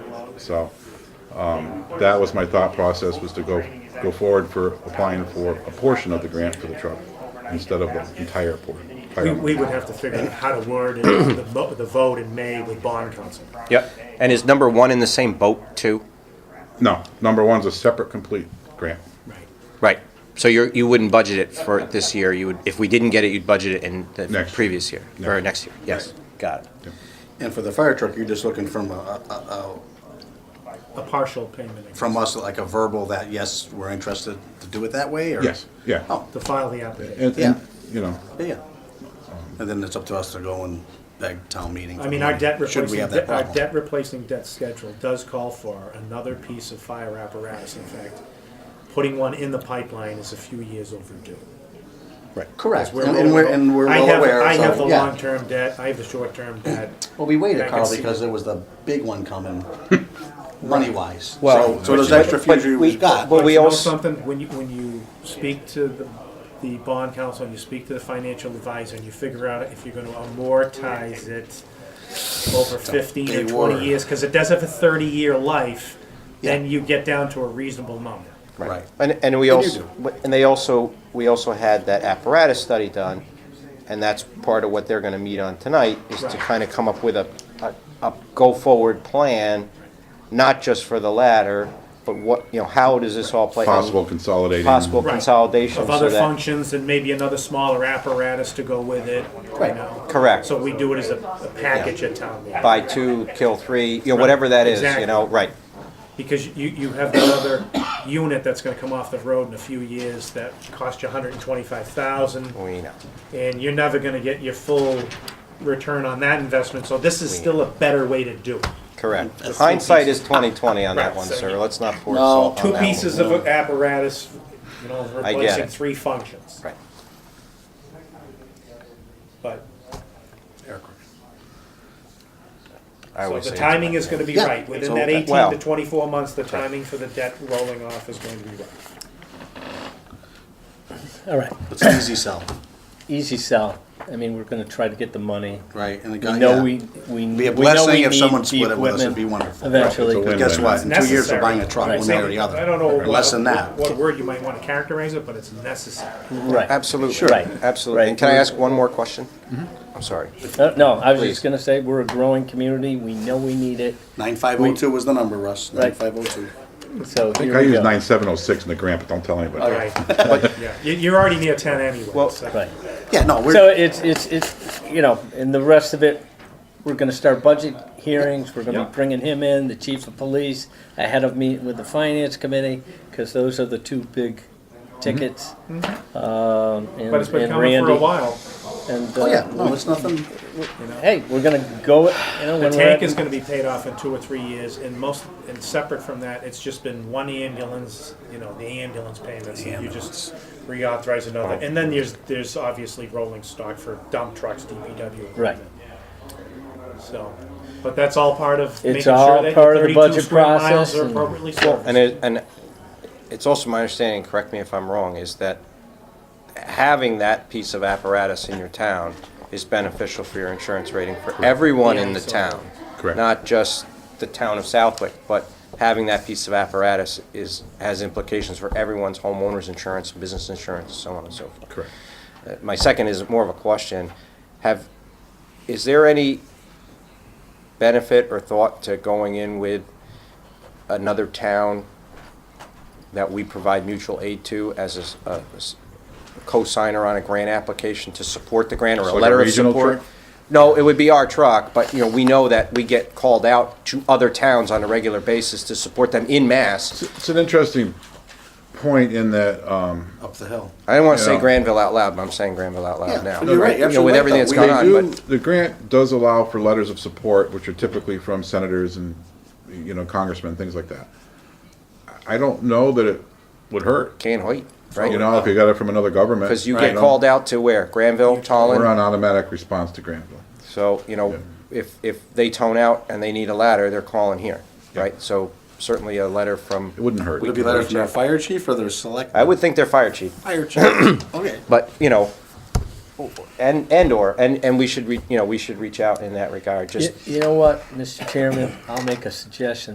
So um, that was my thought process, was to go, go forward for applying for a portion of the grant for the truck instead of the entire portion. We, we would have to figure out how to word it, the, mo- the vote in May with bond council. Yep. And is number one in the same boat too? No, number one's a separate complete grant. Right. Right. So you're, you wouldn't budget it for this year. You would, if we didn't get it, you'd budget it in the Next. previous year or Next. next year. Yes. Got it. And for the fire truck, you're just looking from a, a, A partial payment. a, I from guess, us like a verbal that, yes, we're interested to do it that way, or? Yes, yeah. Oh, To file the application. And, Yeah. and, you know, yeah, yeah. And then it's up to us to go and beg town meeting. for I mean, our money, debt Should replacing, we have de- that our problem? debt replacing debt schedule does call for another piece of fire apparatus. In fact, putting one in the pipeline is a few years overdue. Correct, 'Cause we're and and we're, well- and we're I well have- aware, I have the so, yeah. long-term debt, I have the short-term debt. Well, we I waited, can Carl, see- because there was the big one coming, money-wise. Well- So- So those extra few But you we- we got. but But we you know also- something when you when you speak to the the bond counsel and you speak to the financial advisor and you figure out if you're going to amortize it over 15 or big 20 word. years because it does have a 30 year life then you get down to a reasonable number Right. And, and we And you also, and they also, we also had that apparatus study done, and that's part of what they're gonna meet on tonight, is to Right. kind of come up with a, a, a go-forward plan, not just for the ladder, but what, you know, how does this all play? out? possible consolidating. Possible Right. consolidation, of so other that, functions and maybe another smaller apparatus to go with it you Right. know. Correct. so we do it as a, a package at town meeting buy two, kill three, you know, whatever that is, you know, Exactly. right, because you, you have that other unit that's going to come off the road in a few years that cost you 125000 we know. and you're never going to get your full return on that investment. So this is still a better way to do it. Correct. That's two Hindsight is twenty-twenty on that Right, one, so sir, you- let's not pour No, salt on Two that one. pieces of apparatus, you know, I get replacing it. three functions. Right. But I so always the say- timing is going to be Yeah. right. Within So that that- 18 well- to 24 months, the timing for the debt rolling off is going to be right. All right, It's an easy sell, easy sell. I mean, we're gonna try to get the money. right? And the We guy, know Uh, yeah. we, we. Be a we know blessing we if need someone the split it with us, it'd equipment be wonderful. Eventually, It's a But but win. guess what? In two years, we're Necessary. buying a truck, Right. one way or the other. I don't know Less than what- that. what word you might want to characterize it, but it's necessary. right. Absolutely, Right. absolutely. And can I Right. ask one more question? Mm-hmm. I'm sorry. Uh, No, I was Please. just gonna say, we're a growing community. We know we need it, Nine five oh two was the number, Russ, nine Right. five oh two. so I here think I we use go. nine seven oh six in the grant, but don't tell anybody. Right. yeah. You- You're already near 10 anyway. Well, so. Right. Yeah, no, So we're, it's, it's, it's, you know, and the rest of it, we're gonna start budget hearings. We're gonna Yeah. be bringing him in, the chief of police, ahead of meeting with the finance committee, because those are the two big Mm-hmm. tickets. Um, and But it's been and coming for a Randy. while. And, oh uh, yeah, no, it's nothing, hey, we're gonna go, you know, The when we're tank at is gonna be paid off in two or three years, and most, and separate from that, it's just been one ambulance, you know, the ambulance payments, and you just reauthorize another, and then there's, there's obviously rolling stock for dump trucks, DPW. equipment. Right. So, but that's all part of making It's sure all that part of your the thirty-two budget square miles process are and- appropriately And serviced. it, and it's also my understanding, correct me if I'm wrong, is that having that piece of apparatus in your town is beneficial for your insurance rating for everyone in the town. Correct. Not just the town of Southwick, but having that piece of apparatus is, has implications for everyone's homeowner's insurance, business insurance, so on and so forth. Correct. Uh, My second is more of a question. Have, is there any benefit or thought to going in with another town that we provide mutual aid to as a s- a s- co-signer on a grant application to support the grant or a So like a letter of regional support? truck? No, it would be our truck, but, you know, we know that we get called out to other towns on a regular basis to support them in mass. It's an interesting point in that, um, up the hill. I didn't want to say Yeah. Granville out loud, but I'm saying Granville out Yeah, loud now. you're right, You know, absolutely With right, everything though. that's We gone do on, but. The grant does allow for letters of support, which are typically from senators and, you know, congressmen, things like that. I don't know that it would hurt, Can't wait, you right? know, if you got it from another government. Because you Right. get know, called out to where? Granville, We're Tallinn? on automatic response to Granville. So, you know, if, if they tone out and they need a ladder, they're calling here, right? So certainly a letter from, It wouldn't hurt. Would it be letter from their fire chief or their select? I would think they're fire chief, Fire chief, okay. but, you know, and, and or, and, and we should, re- you know, we should reach out in that regard, You just you know what, Mr. Chairman, I'll make a suggestion.